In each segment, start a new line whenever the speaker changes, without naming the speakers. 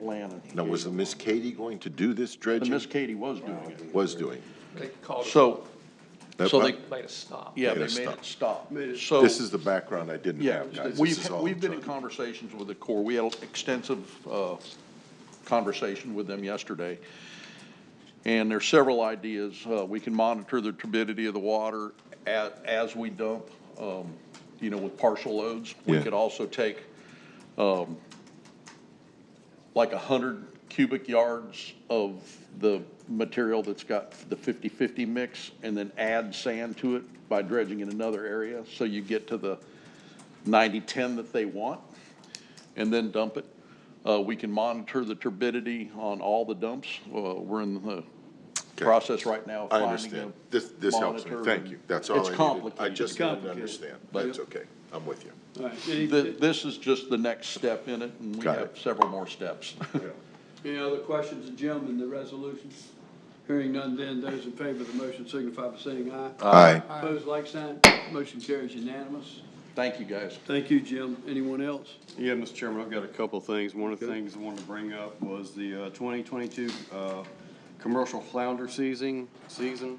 Atlanta.
Now, was Miss Katie going to do this
And
dredging?
Miss Katie was doing it.
Was doing.
They called it,
So, so they,
made a stop.
yeah, they
Made it
made it
stop.
stop. So,
This is the background I didn't
yeah,
have, guys. This
we've,
is all
we've
I'm
been in
trying-
conversations with the Corps. We had extensive, uh, conversation with them yesterday. And there's several ideas. Uh, we can monitor the turbidity of the water as, as we dump, um, you know, with partial loads. We
Yeah.
could also take, um, like a hundred cubic yards of the material that's got the 50-50 mix and then add sand to it by dredging in another area. So you get to the 90-10 that they want and then dump it. Uh, We can monitor the turbidity on all the dumps. Uh, We're in the process right now of
I
finding a
understand. This, this helps me.
monitor
Thank
and
you. That's all I needed.
It's complicated.
I just didn't
complicated.
understand. That's okay. I'm with you.
All right, any,
Th- This is just the next step in it, and we
Got
have
it.
several more steps.
any other questions of Jim in the resolution? Hearing none then, those in favor of the motion signify by saying aye.
Aye.
Opposed, like sign, motion carries unanimous.
Thank you, guys.
Thank you, Jim. Anyone else?
Yeah, Mr. Chairman, I've got a couple of things. One of the things I wanted to bring up was the uh, 2022 uh, commercial flounder season, season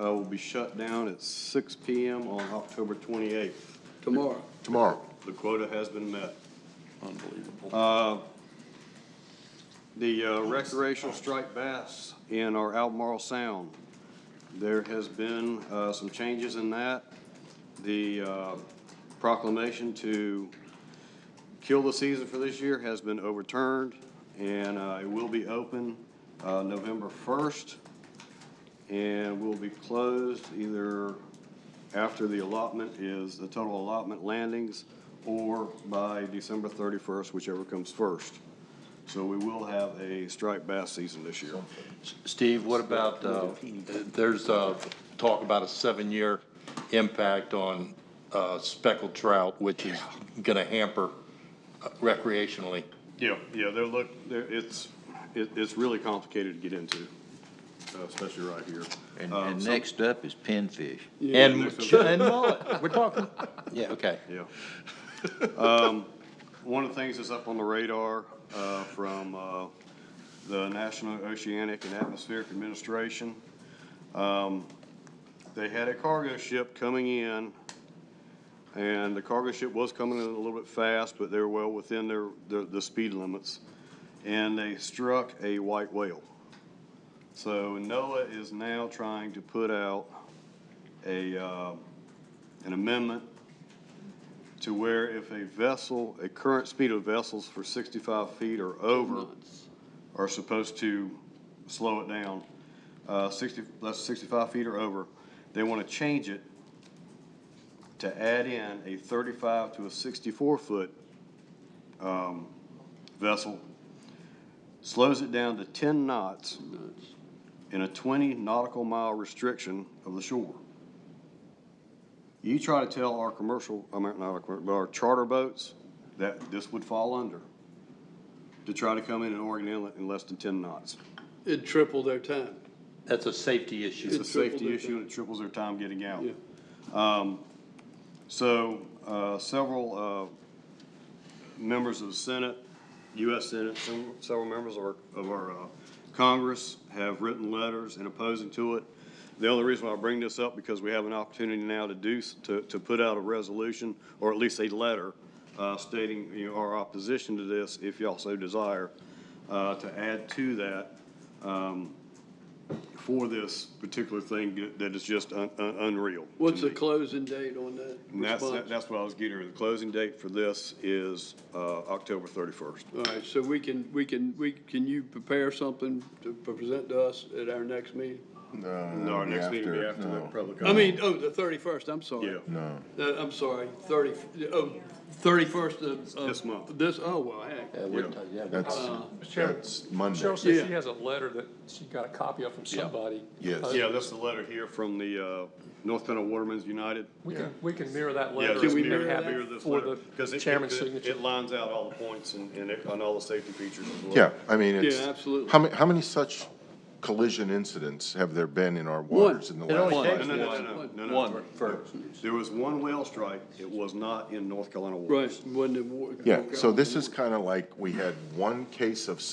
uh, will be shut down at 6 PM on October 28th.
Tomorrow.
Tomorrow.
The quota has been met.
Unbelievable.
The uh, recreational striped bass in our Albemarle Sound, there has been uh, some changes in that. The uh, proclamation to kill the season for this year has been overturned, and uh, it will be open uh, November 1st, and will be closed either after the allotment is, the total allotment landings, or by December 31st, whichever comes first. So we will have a striped bass season this year.
Steve, what about, uh, there's uh, talk about a seven-year impact on uh, speckled trout, which is going to hamper uh, recreationally.
Yeah, yeah, they're look, they're, it's, it, it's really complicated to get into, uh, especially right here.
And,
Um,
and
so-
next up is pinfish.
And,
there's
and mullet, we're talking, yeah, okay.
Yeah. Um, one of the things that's up on the radar, uh, from, uh, the National Oceanic and Atmospheric Administration, um, they had a cargo ship coming in, and the cargo ship was coming in a little bit fast, but they're well within their, the, the speed limits, and they struck a white whale. So NOAA is now trying to put out a, uh, an amendment to where if a vessel, a current speed of vessels for sixty-five feet or over are supposed to slow it down, uh, sixty, that's sixty-five feet or over, they want to change it to add in a thirty-five to a sixty-four foot, um, vessel, slows it down to ten knots in a twenty nautical mile restriction of the shore. You try to tell our commercial, I mean, not our, commer- but our charter boats that this would fall under to try to come in an Oregon Inlet in less than ten knots.
It tripled their time.
That's a safety
It's
issue.
a
It tripled
safety
their
issue and it triples their time getting out.
Yeah.
Um, So, uh, several uh, members of the Senate, US Senate, several- several members of our, of our uh, Congress have written letters in opposing to it. The only reason why I bring this up, because we have an opportunity now to do, s- to, to put out a resolution, or at least a letter uh, stating, you know, our opposition to this, if y'all so desire, uh, to add to that um, for this particular thing that- that is just un- un- unreal. to
What's the
me.
closing date on that
And that's,
response?
that's what I was getting at. The closing date for this is uh, October 31st.
All right, so we can, we can, we, can you prepare something to present to us at our next meeting?
No, our next meeting will be after the
no.
public
I
comment.
mean, oh, the thirty-first, I'm sorry.
Yeah.
No.
Uh, I'm sorry, thirty, oh, thirty-first of. of
This month.
This, oh, well, heck,
Uh, we're ta- yeah, we're-
That's,
Chairman,
that's Monday.
Cheryl says
Yeah.
she has a letter that she got a copy of from somebody.
Yes.
Uh,
Yeah, that's the letter here from the uh, North Carolina Watermen's United.
We can, we can mirror that
Yeah,
letter.
just
we
and
mirror
have it
that?
mirror this
For
letter, 'cause it-
the
it-
chairman's
it-
signature.
It lines out all the points and, and it- on all the safety features as well.
Yeah, I mean, it's.
absolutely.
How many, how many such collision incidents have there been in our waters in the
It
last?
only
No,
takes
no, no,
one.
no, no, no,
One
no.
first.
There was one whale strike. It was not in North Carolina waters.
Right, when the war.
Yeah, so this is kind of like we had one case of